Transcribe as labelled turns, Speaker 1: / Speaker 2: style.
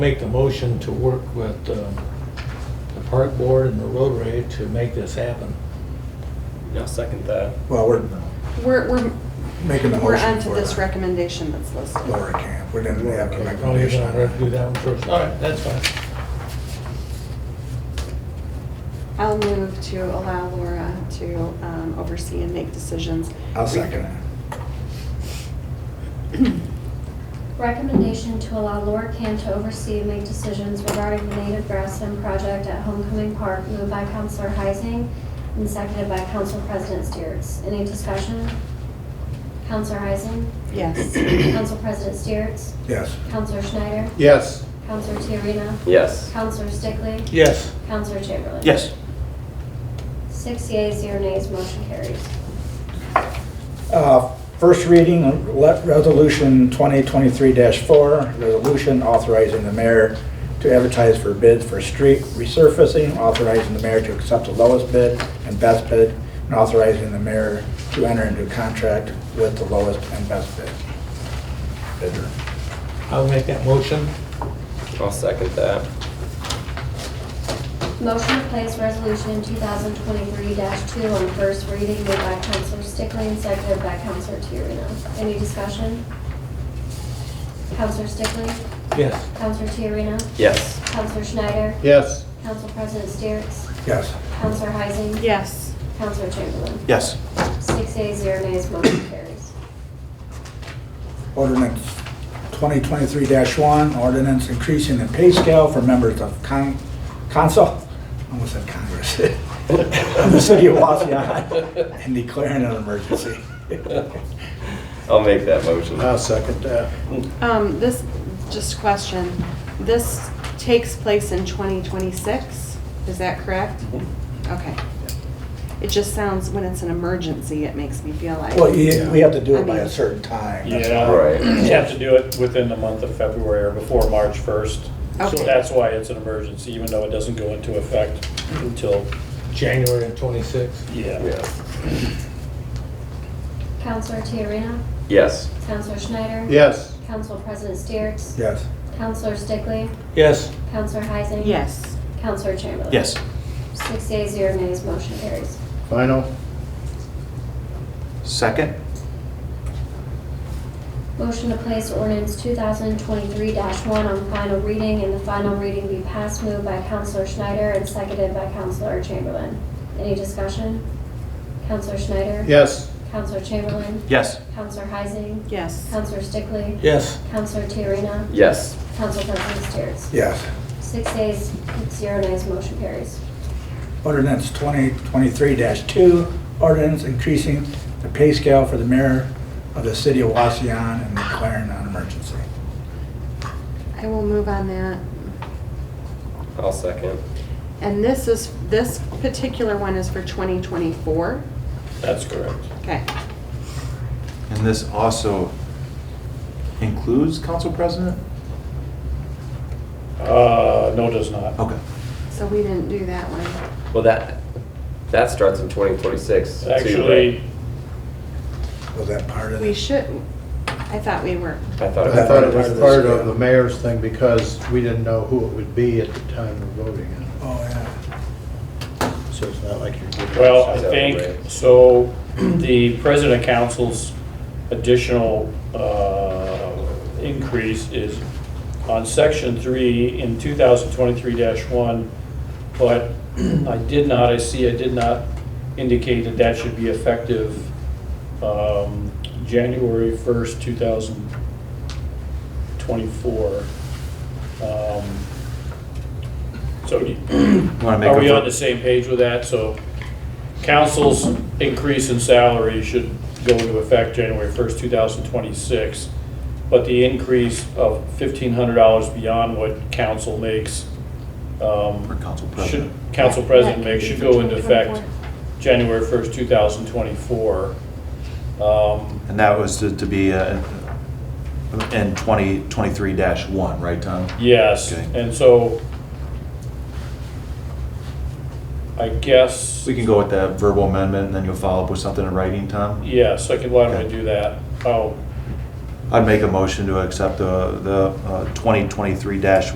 Speaker 1: Make the motion to work with um, the park board and the roadway to make this happen.
Speaker 2: I'll second that.
Speaker 3: Well, we're
Speaker 4: We're, we're,
Speaker 3: making a
Speaker 4: we're
Speaker 3: motion
Speaker 4: onto
Speaker 3: for
Speaker 4: this recommendation that's listed.
Speaker 3: Laura Camp. We didn't have a
Speaker 1: Oh, you're
Speaker 3: recommendation on
Speaker 1: gonna do
Speaker 3: that.
Speaker 1: that one first. All right, that's fine.
Speaker 4: I'll move to allow Laura to um, oversee and make decisions.
Speaker 3: I'll second it.
Speaker 5: Recommendation to allow Laura Camp to oversee and make decisions regarding the native grassland project at Homecoming Park, moved by Counselor Heising and seconded by Council President Steeritz. Any discussion? Counselor Heising?
Speaker 4: Yes.
Speaker 5: Council President Steeritz?
Speaker 3: Yes.
Speaker 5: Counselor Schneider?
Speaker 3: Yes.
Speaker 5: Counselor Tiarena?
Speaker 2: Yes.
Speaker 5: Counselor Stickley?
Speaker 1: Yes.
Speaker 5: Counselor Chamberlain?
Speaker 6: Yes.
Speaker 5: Six yeas, zero nays, motion carries.
Speaker 3: Uh, First reading, le- Resolution 2023-4, resolution authorizing the mayor to advertise for bids for street resurfacing, authorizing the mayor to accept the lowest bid and best bid, and authorizing the mayor to enter into contract with the lowest and best bid. Bidder.
Speaker 1: I'll make that motion.
Speaker 2: I'll second that.
Speaker 5: Motion to place resolution 2023-2 on first reading made by Counselor Stickley and seconded by Counselor Tiarena. Any discussion? Counselor Stickley?
Speaker 1: Yes.
Speaker 5: Counselor Tiarena?
Speaker 2: Yes.
Speaker 5: Counselor Schneider?
Speaker 1: Yes.
Speaker 5: Council President Steeritz?
Speaker 3: Yes.
Speaker 5: Counselor Heising?
Speaker 4: Yes.
Speaker 5: Counselor Chamberlain?
Speaker 6: Yes.
Speaker 5: Six A zero nays, motion carries.
Speaker 3: Ordinance 2023-1, ordinance increasing the pay scale for members of con- council, I almost said Congress, of the city of Waseon, and declaring an emergency.
Speaker 2: I'll make that motion.
Speaker 6: second
Speaker 7: uh,
Speaker 6: that.
Speaker 4: Um, this, just a question, this takes place in 2026, is that correct?
Speaker 3: Mm-hmm.
Speaker 4: Okay. It just sounds, when it's an emergency, it makes me feel like.
Speaker 3: Well, you- we have to do it by a certain time.
Speaker 2: Right.
Speaker 7: Yeah, you have to do it within the month of February or before March 1st.
Speaker 4: Okay.
Speaker 7: So that's why it's an emergency, even though it doesn't go into effect until,
Speaker 1: January of twenty-six.
Speaker 7: yeah.
Speaker 2: Yes.
Speaker 5: Counselor Tiarena?
Speaker 2: Yes.
Speaker 5: Counselor Schneider?
Speaker 6: Yes.
Speaker 5: Council President Steeritz?
Speaker 3: Yes.
Speaker 5: Counselor Stickley?
Speaker 1: Yes.
Speaker 5: Counselor Heising?
Speaker 4: Yes.
Speaker 5: Counselor Chamberlain?
Speaker 6: Yes.
Speaker 5: Six A zero nays, motion carries.
Speaker 6: Final. Second?
Speaker 5: Motion to place ordinance 2023-1 on final reading and the final reading be passed moved by Counselor Schneider and seconded by Counselor Chamberlain. Any discussion? Counselor Schneider?
Speaker 6: Yes.
Speaker 5: Counselor Chamberlain?
Speaker 6: Yes.
Speaker 5: Counselor Heising?
Speaker 4: Yes.
Speaker 5: Counselor Stickley?
Speaker 1: Yes.
Speaker 5: Counselor Tiarena?
Speaker 2: Yes.
Speaker 5: Counsel President Steeritz?
Speaker 3: Yes.
Speaker 5: Six days, zero nays, motion carries.
Speaker 3: Ordinance 2023-2, ordinance increasing the pay scale for the mayor of the city of Waseon and declaring an emergency.
Speaker 4: I will move on that.
Speaker 2: I'll second.
Speaker 4: And this is, this particular one is for 2024?
Speaker 7: That's correct.
Speaker 4: Okay.
Speaker 8: And this also includes council president?
Speaker 7: Uh, No, it does not.
Speaker 8: Okay.
Speaker 4: So we didn't do that one.
Speaker 2: Well, that, that starts in 2026. too, right?
Speaker 7: Actually,
Speaker 3: Was that part of it?
Speaker 4: We should, I thought we were,
Speaker 2: I thought
Speaker 6: I thought it was
Speaker 3: this
Speaker 6: part
Speaker 3: deal.
Speaker 6: of the mayor's thing because we didn't know who it would be at the time of voting.
Speaker 3: Oh, yeah.
Speaker 6: So it's not like you're. giving
Speaker 7: well, I
Speaker 2: Is that
Speaker 7: think,
Speaker 2: right?
Speaker 7: so the president of council's additional uh, increase is on section three in 2023-1, but I did not, I see, I did not indicate that that should be effective um, January 1st, 2024. Um, So do-
Speaker 8: Wanna make
Speaker 7: are
Speaker 8: a
Speaker 7: we
Speaker 8: vo-
Speaker 7: on the same page with that? So council's increase in salary should go into effect January 1st, 2026, but the increase of $1,500 beyond what council makes. um,
Speaker 8: For council
Speaker 7: should-
Speaker 8: president.
Speaker 7: Council president makes should go into effect
Speaker 4: 2024.
Speaker 7: January 1st, 2024. Um,
Speaker 8: And that was to to be uh, in 2023-1, right, Tom?
Speaker 7: Yes,
Speaker 8: Okay.
Speaker 7: and so I guess.
Speaker 8: We can go with that verbal amendment, and then you'll follow up with something in writing, Tom?
Speaker 7: Yes, I can, why don't I do that? Oh,
Speaker 8: I'd make a motion to accept the the uh, 2023-1